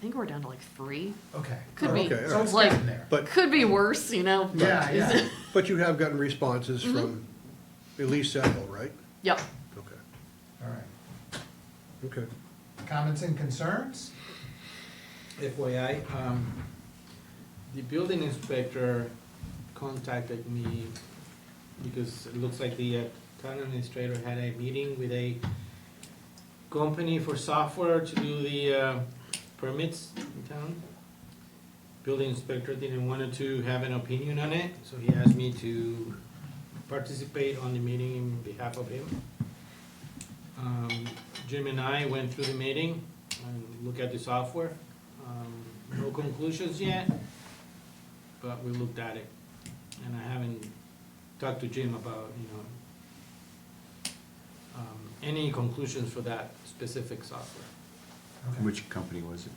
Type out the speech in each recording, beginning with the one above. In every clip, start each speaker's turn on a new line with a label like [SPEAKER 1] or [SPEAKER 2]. [SPEAKER 1] think we're down to like three.
[SPEAKER 2] Okay.
[SPEAKER 1] Could be.
[SPEAKER 2] So it's
[SPEAKER 1] Like-
[SPEAKER 2] getting there.
[SPEAKER 3] But,
[SPEAKER 1] Could be worse, you know. but-
[SPEAKER 2] Yeah, yeah.
[SPEAKER 3] but you have gotten responses from at least several, right?
[SPEAKER 1] Yep.
[SPEAKER 3] Okay,
[SPEAKER 2] All right.
[SPEAKER 3] okay.
[SPEAKER 2] Comments and concerns?
[SPEAKER 4] FYI, um, the building inspector contacted me because it looks like the uh, town administrator had a meeting with a company for software to do the uh, permits in town. Building inspector didn't want to have an opinion on it, so he asked me to participate on the meeting in behalf of him. Um, Jim and I went through the meeting and looked at the software. Um, No conclusions yet, but we looked at it. And I haven't talked to Jim about, you know, um, any conclusions for that specific software.
[SPEAKER 2] Okay.
[SPEAKER 5] Which company was it?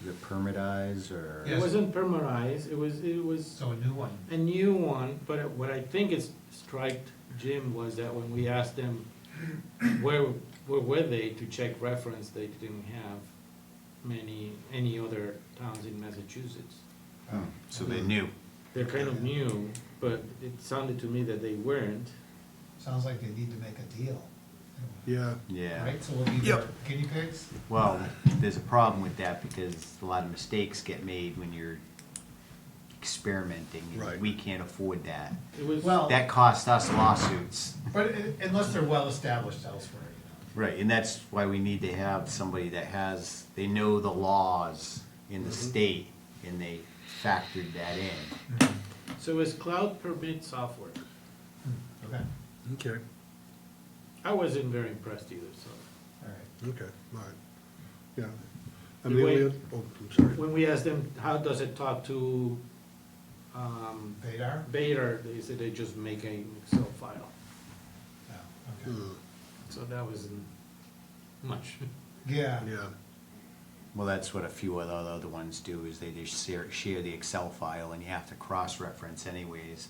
[SPEAKER 5] Was it Permitize or?
[SPEAKER 2] Yes.
[SPEAKER 4] It wasn't permarized, it was, it was
[SPEAKER 2] So a new one.
[SPEAKER 4] a new one, but what I think is striked Jim was that when we asked them where, where were they to check reference, they didn't have many, any other towns in Massachusetts.
[SPEAKER 5] Oh, So they knew.
[SPEAKER 4] They're kind of new, but it sounded to me that they weren't.
[SPEAKER 2] Sounds like they need to make a deal.
[SPEAKER 3] Yeah,
[SPEAKER 5] Yeah.
[SPEAKER 2] Right, so we'll be their guinea pigs?
[SPEAKER 5] Well, there's a problem with that because a lot of mistakes get made when you're experimenting. and
[SPEAKER 3] Right.
[SPEAKER 5] We can't afford that.
[SPEAKER 4] It was,
[SPEAKER 2] Well-
[SPEAKER 5] That cost us lawsuits.
[SPEAKER 2] But i- unless they're well-established elsewhere, you
[SPEAKER 5] Right, and that's why we need to have somebody that has, they know the laws in the state and they factored that in.
[SPEAKER 4] so it was cloud permit software.
[SPEAKER 2] know. Okay,
[SPEAKER 3] okay,
[SPEAKER 4] I wasn't very impressed either, so.
[SPEAKER 2] all right.
[SPEAKER 3] okay, all right, yeah. I
[SPEAKER 4] You
[SPEAKER 3] mean,
[SPEAKER 4] wait.
[SPEAKER 3] Leo- oh, I'm sorry,
[SPEAKER 4] When we asked them, how does it talk to, um,
[SPEAKER 2] Vadar?
[SPEAKER 4] Vader, they said they just make a Excel file.
[SPEAKER 2] No, Oh, okay.
[SPEAKER 3] Hmm,
[SPEAKER 4] So that wasn't much.
[SPEAKER 2] Yeah,
[SPEAKER 3] yeah,
[SPEAKER 5] Well, that's what a few other, other ones do, is they just share, share the Excel file and you have to cross-reference anyways.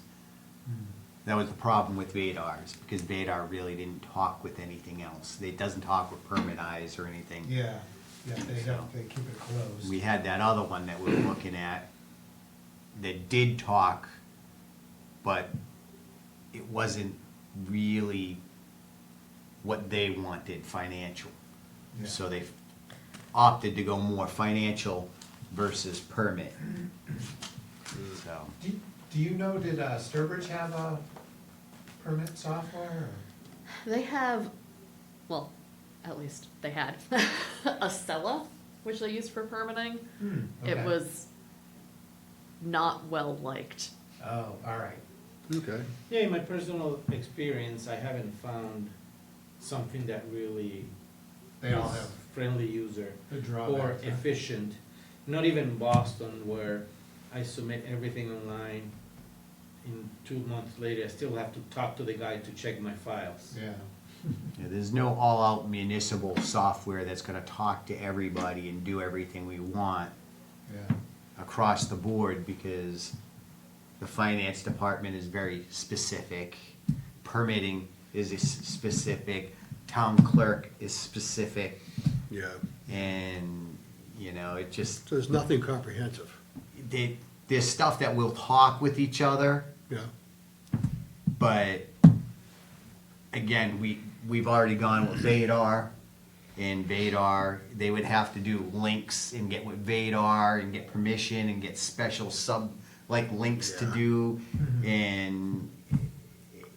[SPEAKER 5] That was the problem with Vadars, because Vadar really didn't talk with anything else. It doesn't talk with permit eyes or anything.
[SPEAKER 2] yeah, yeah, they don't, they keep it closed.
[SPEAKER 5] We had that other one that we were looking at that did talk, but it wasn't really what they wanted financial.
[SPEAKER 2] Yeah.
[SPEAKER 5] So they opted to go more financial versus permit. So,
[SPEAKER 2] Do, do you know, did uh, Sturbridge have a permit software? or-
[SPEAKER 1] They have, well, at least they had a cella, which they used for permitting.
[SPEAKER 2] Hmm,
[SPEAKER 1] It
[SPEAKER 2] okay.
[SPEAKER 1] was not well liked.
[SPEAKER 2] Oh, all right.
[SPEAKER 3] okay,
[SPEAKER 4] Yeah, in my personal experience, I haven't found something that really
[SPEAKER 2] They all
[SPEAKER 4] is
[SPEAKER 2] have
[SPEAKER 4] friendly user
[SPEAKER 2] the
[SPEAKER 4] or
[SPEAKER 2] drawbacks. huh?
[SPEAKER 4] efficient. Not even Boston where I submit everything online. In two months later, I still have to talk to the guy to check my files.
[SPEAKER 2] Yeah,
[SPEAKER 5] yeah, there's no all-out municipal software that's gonna talk to everybody and do everything we want.
[SPEAKER 2] yeah.
[SPEAKER 5] across the board because the finance department is very specific, permitting is a s- specific, town clerk is specific,
[SPEAKER 3] yeah.
[SPEAKER 5] and, you know, it just,
[SPEAKER 3] So there's nothing comprehensive,
[SPEAKER 5] they, there's stuff that will talk with each other,
[SPEAKER 3] yeah,
[SPEAKER 5] but again, we, we've already gone with Vadar, and Vadar, they would have to do links and get with Vadar and get permission and get special sub, like links to
[SPEAKER 3] Yeah.
[SPEAKER 5] do, and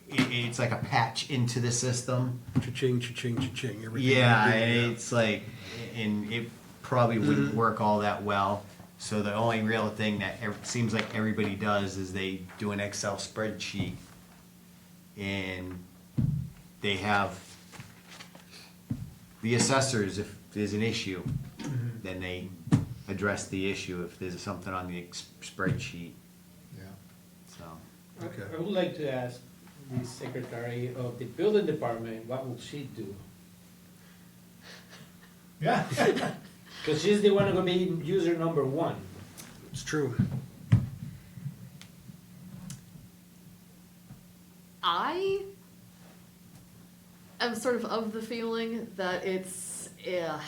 [SPEAKER 5] it, it's like a patch into the system.
[SPEAKER 3] cha-ching, cha-ching, cha-ching, everything.
[SPEAKER 5] Yeah,
[SPEAKER 3] Yeah.
[SPEAKER 5] it's like, and it probably wouldn't work all that well. So the only real thing that ev- seems like everybody does is they do an Excel spreadsheet, and they have the assessors. If there's an issue, then they address the issue. If there's something on the ex- spreadsheet,
[SPEAKER 2] Yeah.
[SPEAKER 5] so
[SPEAKER 4] I-
[SPEAKER 3] Okay.
[SPEAKER 4] I would like to ask the secretary of the building department, what will she do?
[SPEAKER 2] Yeah.
[SPEAKER 4] Cause she's the one who gonna be user number one.
[SPEAKER 3] It's true,
[SPEAKER 1] I am sort of of the feeling that it's, eh, yeah,